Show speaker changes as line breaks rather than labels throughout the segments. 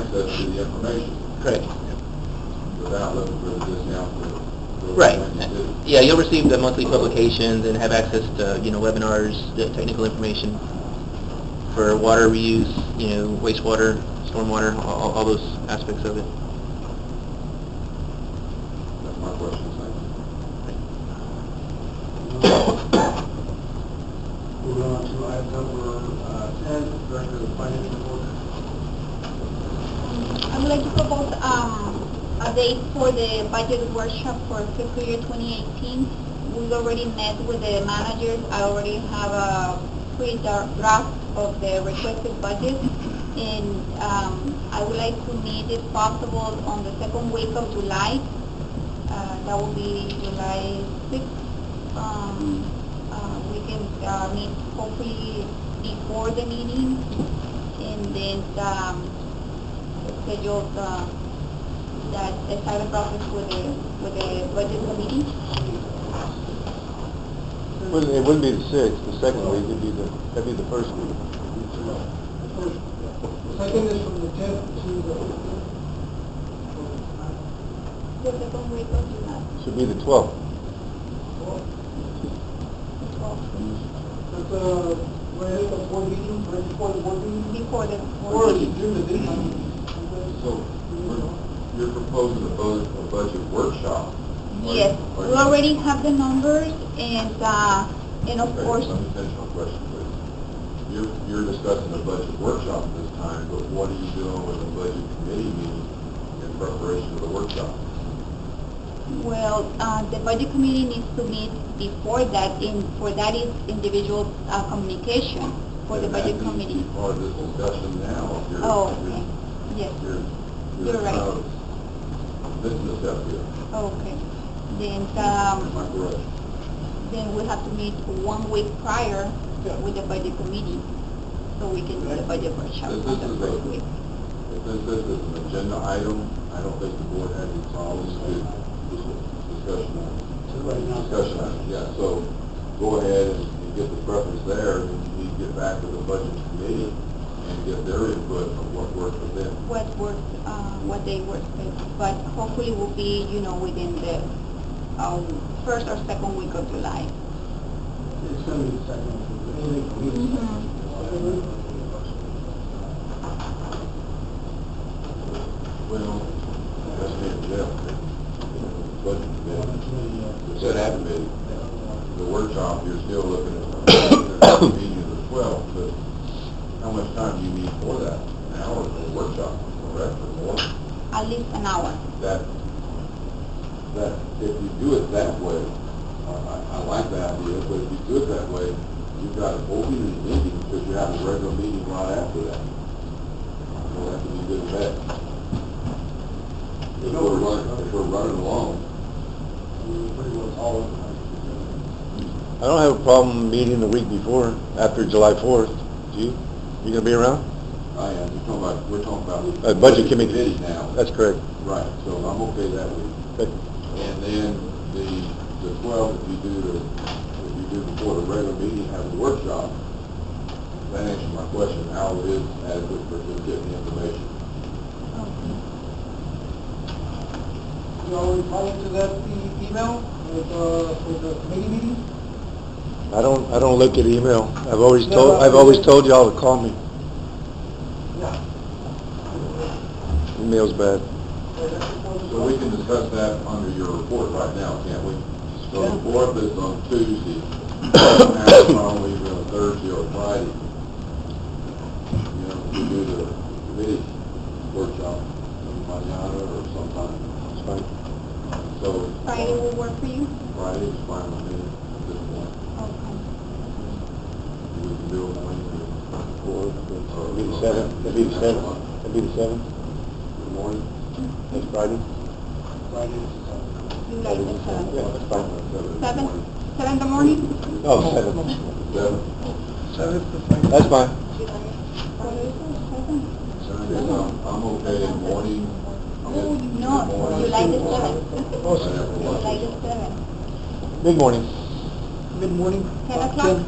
to the information
Correct.
without looking for the discount for. for
Right.
what you do.
Yeah, you'll receive the monthly publications and have access to, you know, webinars, the technical information for water reuse, you know, wastewater, stormwater, all- all, all those aspects of it.
That's my question, thank you.
Moving on to item number uh, 10, Director of the Finance Report.
I would like to propose um, a date for the budget workshop for fiscal year 2018. We've already met with the managers. I already have a pre-draft of the requested budget. And um, I would like to meet, if possible, on the second week of July. Uh, That will be July 6th. Um, uh, We can uh, meet hopefully before the meeting. And then um, schedule uh, that the entire process with the, with the budget committee.
It wouldn't be the sixth, the second week, it'd be the, that'd be the first week.
Second is from the 10th to the 15th.
The second week of July,
Should be the twelfth.
before,
That's uh, right at the board meeting, right before the board meeting.
before the
Or
board
is it
meeting.
during the daytime?
So, we're- you're proposing a budget, a budget workshop? Are you-
Yes,
are
we
you-
already have the numbers and, uh, and of
Okay,
course,
Let me finish my question, please. You're, you're discussing a budget workshop at this time, but what are you doing with the budget committee meeting in preparation for the workshop?
well, uh, the budget committee needs to meet before that, and for that is individual uh, communication for the
And that needs
budget
to be
committee.
Part of this discussion now, if you're,
Oh,
you're-
okay, yes.
you're,
You're
you're
right. Um,
kind of missing a step here.
Okay, then,
Am
um,
I correct?
then we have to meet one week prior with the budget committee, so we can do the budget workshop
This
on
is
the
a-
first week.
If this is an agenda item, I don't think the board has any problems with this discussion on it. discussion on it, yeah, so go ahead and and get the preference there, and you need to get back to the budget committee and get their input on what works for them.
What works, uh, what they work with, but hopefully will be, you know, within the, um, first or second week of July.
uh,
It's going to be the second.
Well, that's me and Jeff, budget committee, the set app committee, uh, the workshop, you're still looking at the meeting of the twelve, but how much time do you need for that? An hour for the workshop, correct, or more?
At least an hour.
that, that if you do it that way, I, I I like that idea, but if you do it that way, you've got an opening and ending, because you have a regular meeting right after that. So that can be good and bad. If we're running, if we're running along.
Pretty well all of them.
I don't have a problem meeting the week before, after July fourth, do you? You gonna be around? I am, you're talking about, we're talking about.
Uh, budget committee.
Now.
correct.
Right, so I'm okay that week. And then the, the twelve, if you do the, if you do before the regular meeting, have a workshop, that answers my question, how it is adequate for just getting the information.
You already replied to that e- email with, uh, for the committee meeting?
I don't, I don't look at email. I've always
No, told- no. I've always
told y'all to call me.
Yeah.
Email's bad.
So we can discuss that under your report right now, can't we? So
Yeah.
the fourth is on Tuesday, have it on either on Thursday or Friday. You know, we do the committee workshop, mañana or sometime. So.
Friday will work for you?
Friday is fine with me at this point.
Okay.
We can do it Wednesday. Or-
It'd be the seventh, it'd be the seventh, it'd be the seventh,
In the morning?
next Friday.
You like the
Yeah,
seventh?
that's fine.
Seven, seven in the morning?
Oh, seven,
Seven?
that's fine.
Seven?
Seven, is, um, I'm okay in morning.
Oh,
in- in
no,
morning.
you like the seven?
I have a
You
lunch.
like the seven?
Good morning.
Mid-morning?
Ten o'clock?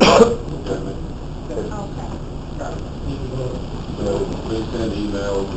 Okay, man.
Okay.
Got it.
Ten
So please send emails or